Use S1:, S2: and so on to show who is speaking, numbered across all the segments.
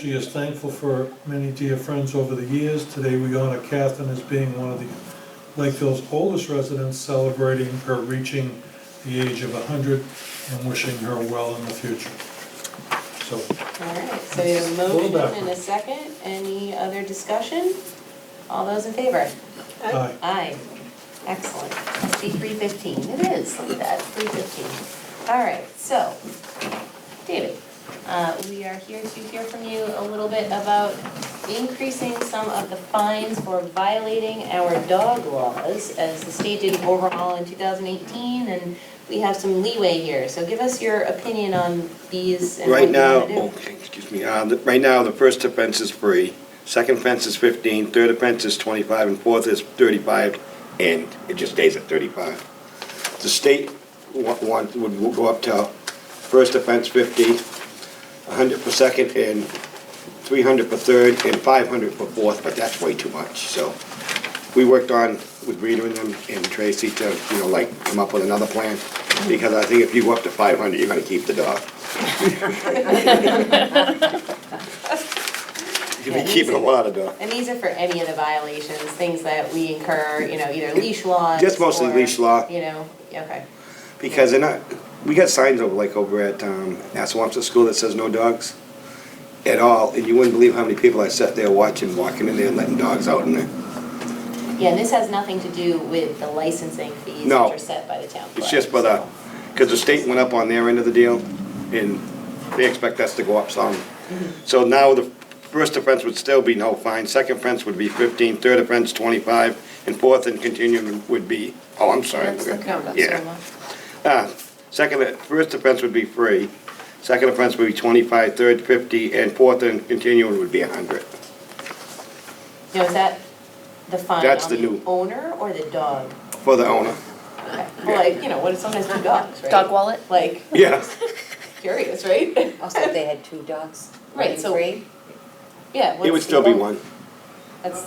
S1: She is thankful for many dear friends over the years. Today, we honor Catherine as being one of the Lakeville's oldest residents, celebrating her reaching the age of 100 and wishing her well in the future. So,
S2: All right, so we have a
S1: Pull it
S2: motion
S1: back.
S2: and a second. Any other discussion? All those in favor?
S1: aye.
S2: Aye. Excellent. Must be three fifteen. It is, look at that, three fifteen. All right, so, David, uh, we are here to hear from you a little bit about increasing some of the fines for violating our dog laws as the state did an overhaul in two thousand eighteen, and we have some leeway here. So give us your opinion on these and what
S3: Right
S2: you
S3: now,
S2: wanna do.
S3: okay, excuse me, uh, the- right now, the first offense is free, second offense is 15, third offense is 25, and fourth is 35, and it just stays at 35. The state wa- want, would would go up to first offense 50, 100 for second, and 300 for third, and 500 for fourth, but that's way too much, so. We worked on with Rita and them and Tracy to, you know, like, come up with another plan, because I think if you go up to 500, you're gonna keep the dog. You've been
S2: Yeah,
S3: keeping a
S2: easy.
S3: lot of dog.
S2: And these are for any of the violations, things that we incur, you know, either leash laws.
S3: Just mostly
S2: or,
S3: leash law.
S2: You know, okay,
S3: Because they're not, we got signs over, like over at, um, Assawamsa School that says no dogs at all. And you wouldn't believe how many people I sat there watching, walking in there, letting dogs out in there.
S2: yeah, and this has nothing to do with the licensing fees which
S3: No.
S2: are set by the town clerk.
S3: It's just by the,
S2: so-
S3: because the state went up on their end of the deal, and they expect us to go up some. So now the first offense would still be no fine, second offense would be fifteen, third offense twenty-five, and fourth and continuing would be, oh, I'm sorry.
S2: That's the count, that's
S3: Yeah.
S2: so much.
S3: Ah, second, first offense would be free, second offense would be twenty-five, third fifty, and fourth and continuing would be a hundred.
S2: Now, is that the fine
S3: That's
S2: on
S3: the
S2: the
S3: new-
S2: owner or the dog?
S3: For the owner,
S2: Okay. Well, like, you know, what if sometimes two dogs, right?
S4: Dog wallet?
S2: Like,
S3: yeah.
S2: curious, right?
S5: Also, if they had two dogs,
S2: Right,
S5: right,
S2: so-
S5: three,
S2: Yeah.
S3: It would
S2: what's
S3: still
S2: the-
S3: be one.
S2: That's,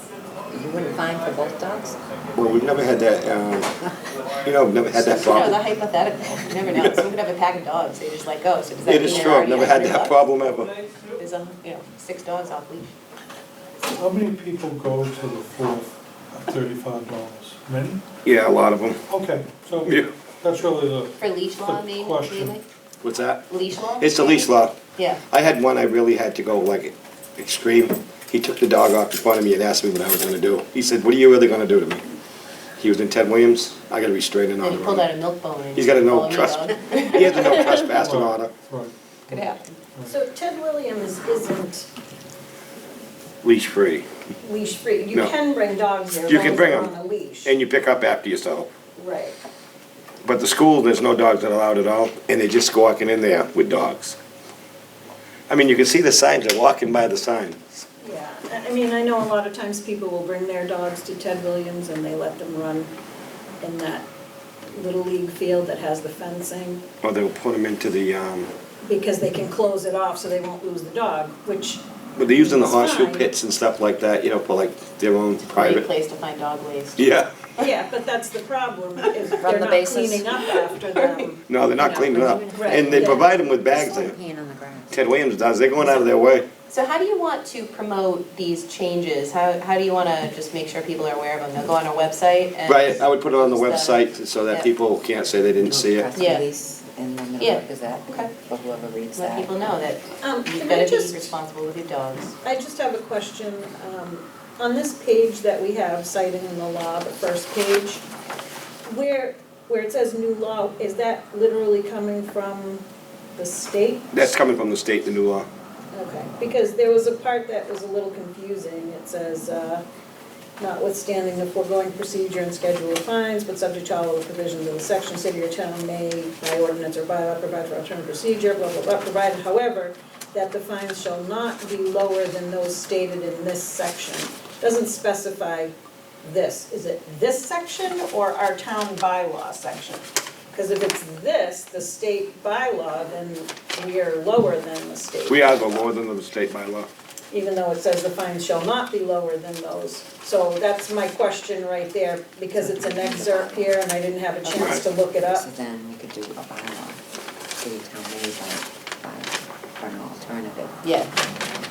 S5: you wouldn't fine for both dogs?
S3: Well, we've never had that, um, you know, we've never had that
S2: you know,
S3: problem.
S2: the hypothetical, you never know, someone could have a pack of dogs, they just like go, so does that mean
S3: It is
S2: they're
S3: true, I've
S2: already
S3: never
S2: on
S3: had
S2: three
S3: that
S2: dogs?
S3: problem ever.
S2: There's a, you know, six dogs off leash.
S1: How many people go to the fourth at $35? Many?
S3: Yeah, a lot of them.
S1: Okay, so
S3: Yeah.
S1: that's really the,
S2: For leash law, maybe,
S1: Question.
S2: mainly?
S3: What's that?
S2: Leash law?
S3: It's the leash law.
S2: Yeah.
S3: I had one I really had to go like extreme. He took the dog off in front of me and asked me what I was gonna do. He said, what are you really gonna do to me? He was in Ted Williams. I gotta be straight and
S2: And
S3: on
S2: he
S3: the
S2: pulled out a
S3: road.
S2: milk bone and.
S3: He's got a
S2: follow
S3: no
S2: me,
S3: trust.
S2: dog.
S3: He has a no trespassing order
S1: right.
S2: Could happen.
S6: So Ted Williams isn't
S3: leash free.
S6: leash free, you
S3: No.
S6: can bring dogs there, as
S3: You
S6: long
S3: can
S6: as
S3: bring
S6: they're
S3: 'em.
S6: on a leash.
S3: And you pick up after yourself.
S6: Right,
S3: But the school, there's no dogs that are allowed at all, and they're just squawking in there with dogs. I mean, you can see the signs, they're walking by the sign.
S6: yeah, I- I mean, I know a lot of times people will bring their dogs to Ted Williams and they let them run in that little league field that has the fencing,
S3: Or Oh, they'll put them into the, um,
S6: because they can close it off so they won't lose the dog, which,
S3: But they're using the
S6: It's
S3: horseshoe
S6: fine.
S3: pits and stuff like that, you know, for like their own
S2: Great
S3: private.
S2: place to find dog waste.
S3: Yeah,
S6: yeah, but that's the problem, is they're
S4: the
S6: not
S4: bases.
S6: cleaning up after them.
S3: no, they're not
S5: Yeah,
S3: cleaning up.
S6: right,
S3: And they
S6: yeah.
S3: provide them with bags
S5: There's
S3: there.
S5: one peeing on the ground.
S3: Ted Williams does, they're going out of their way.
S2: So how do you want to promote these changes? How, how do you wanna just make sure people are aware of them? They'll go on our website and.
S3: Right, I would put it on the
S2: So-
S3: website so
S2: Yeah.
S3: that people can't say they didn't see
S5: Press
S3: it.
S2: Yeah.
S5: release and then
S2: Yeah,
S5: they'll look at
S2: okay.
S5: that, for whoever reads that.
S2: Let people know that
S6: Um,
S2: you've
S6: can I
S2: gotta be
S6: just
S2: responsible with your dogs.
S6: I just have a question. um, On this page that we have citing the law, the first page, where, where it says new law, is that literally coming from the state?
S3: That's coming from the state, the new law.
S6: Okay, because there was a part that was a little confusing. It says, uh, notwithstanding the foregoing procedure and schedule of fines, but subject to all of the provisions of the section, city or town may, by ordinance or bylaw, provide for alternative procedure, blah, blah, blah, provided, however, that the fines shall not be lower than those stated in this section. Doesn't specify this. Is it this section or our town bylaw section? Because if it's this, the state bylaw, then we are lower than the state
S3: We are the lower than the state by law.
S6: even though it says the fines shall not be lower than those. So that's my question right there, because it's an excerpt here and I didn't have a chance to look it up.
S5: So then we could do a bylaw, city town made by, by, for an alternative.
S2: Yeah,